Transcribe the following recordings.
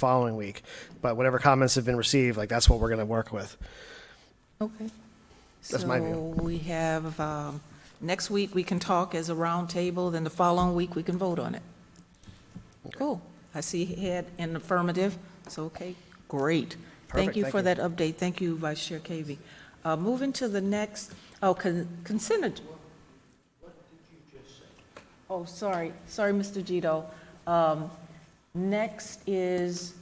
following week. But whatever comments have been received, like, that's what we're gonna work with. Okay. That's my view. So we have, um, next week, we can talk as a roundtable, then the following week, we can vote on it. Cool. I see head in affirmative, so, okay, great. Perfect, Thank you thank for you. that update. Thank you, Vice Chair Cavey. Uh, Moving to the next, oh, con- consent. ag- Oh, sorry, sorry, Mr. Gito. Um, Next is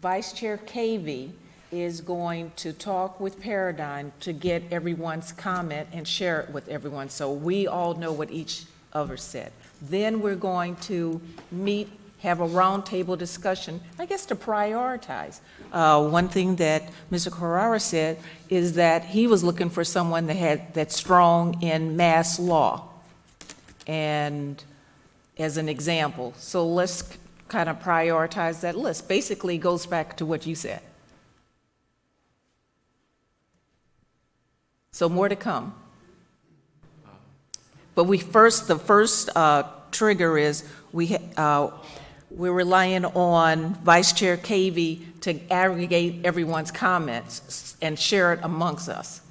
Vice Chair Cavey is going to talk with Paradigm to get everyone's comment and share it with everyone, so we all know what each other said. Then we're going to meet, have a roundtable discussion, I guess to prioritize. Uh, One thing that Mr. Carrara said is that he was looking for someone that had, that's strong in mass law and as an example. So let's kind of prioritize that list. Basically, it goes back to what you said. So more to come. But we first, the first uh, trigger is, we, ha- uh, we're relying on Vice Chair Cavey to aggregate everyone's comments s- and share it amongst us.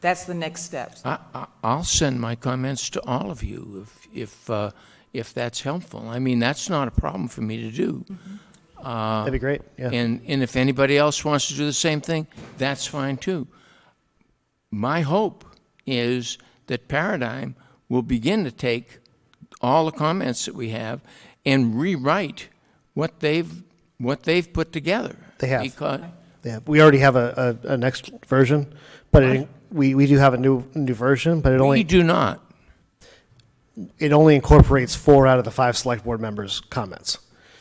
That's the next steps. I, I- I'll send my comments to all of you if, if, uh, if that's helpful. I mean, that's not a problem for me to do. That'd be great, yeah. Uh, And, and if anybody else wants to do the same thing, that's fine too. My hope is that Paradigm will begin to take all the comments that we have and rewrite what they've, what they've put together. They have. Because- Yeah, we already have a, a, a next version, but it, we, we do have a new, new version, but it we only, do not. it only incorporates four out of the five select board members' comments.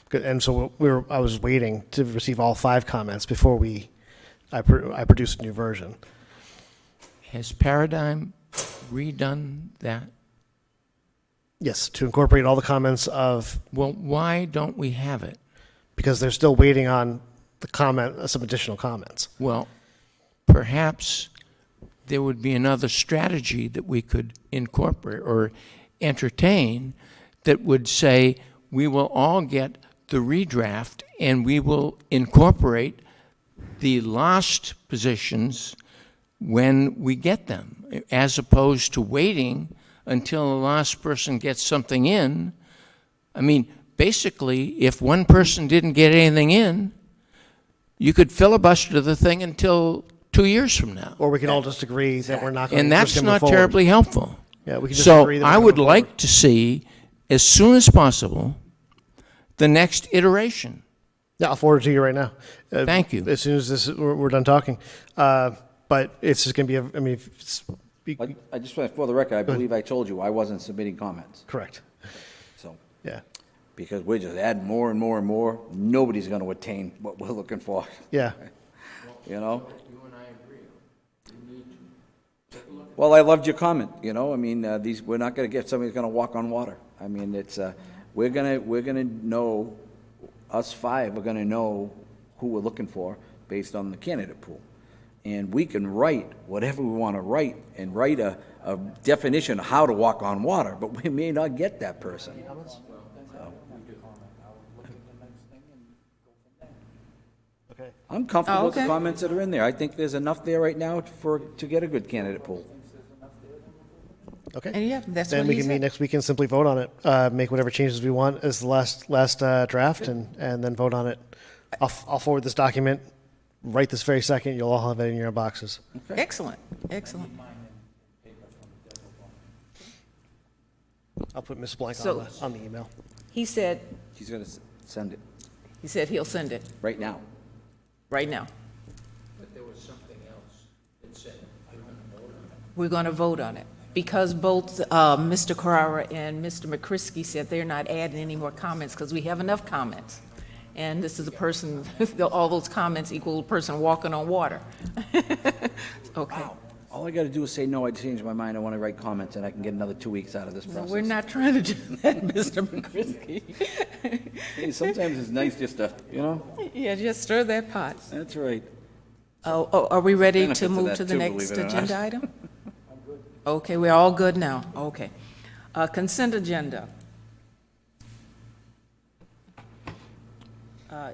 Good, And so we were, I was waiting to receive all five comments before we, I, pro- I produced a new version. Has Paradigm redone that? Yes, to incorporate all the comments of Well, why don't we have it? because they're still waiting on the comment, uh, some additional comments. Well, perhaps there would be another strategy that we could incorporate or entertain that would say, we will all get the redraft and we will incorporate the last positions when we get them, as opposed to waiting until the last person gets something in. I mean, basically, if one person didn't get anything in, you could filibuster the thing until two years from now. Or we can all just agree that we're not going to. And that's not terribly helpful. Yeah, we can just So agree that we're I gonna would move like to see, as soon as possible, the next iteration. Yeah, I'll forward it to you right now. Uh, Thank you. As soon as this, we're, we're done talking. Uh, But it's just going to be, a- I mean, if it's, be- I I just, want for the record, I believe I told you I wasn't submitting comments, correct, so, yeah. because we're just adding more and more and more. Nobody's going to attain what we're looking for, Yeah, you know? Well, I loved your comment, you know, I mean, uh, these, we're not going to get somebody who's going to walk on water. I mean, it's, uh, we're going to, we're going to know, us five are going to know who we're looking for based on the candidate pool. And we can write whatever we want to write and write a, a definition of how to walk on water, but we may not get that person. So. I'm comfortable with the Okay. comments that are in there. I think there's enough there right now for, to get a good candidate pool. okay. And yeah, that's Then what we he can meet said. next week and simply vote on it, uh, make whatever changes we want as the last, last uh, draft and, and then vote on it. I'll, f- I'll forward this document right this very second. You'll all have it in your boxes. Excellent, excellent. I'll put Ms. Blank on So- the, on the email. He said, He's going to send it he said he'll send it right now. right now. But there was something else that said, we're going to vote on it. Because both uh, Mr. Carrara and Mr. McCrisky said they're not adding any more comments because we have enough comments. And this is a person, all those comments equal a person walking on water. Okay. All I gotta do is say, no, I changed my mind, I wanna write comments, and I can get another two weeks out of this So We're process. not trying to do that, Mr. McCrisky. Hey, Sometimes it's nice just to, you know, Yeah, just stir that pot. that's right. Oh, oh, are we ready Benefits to of move that to the too, next believe it or not. agenda item? Okay, we're all good now, okay. Uh, Consent agenda. uh,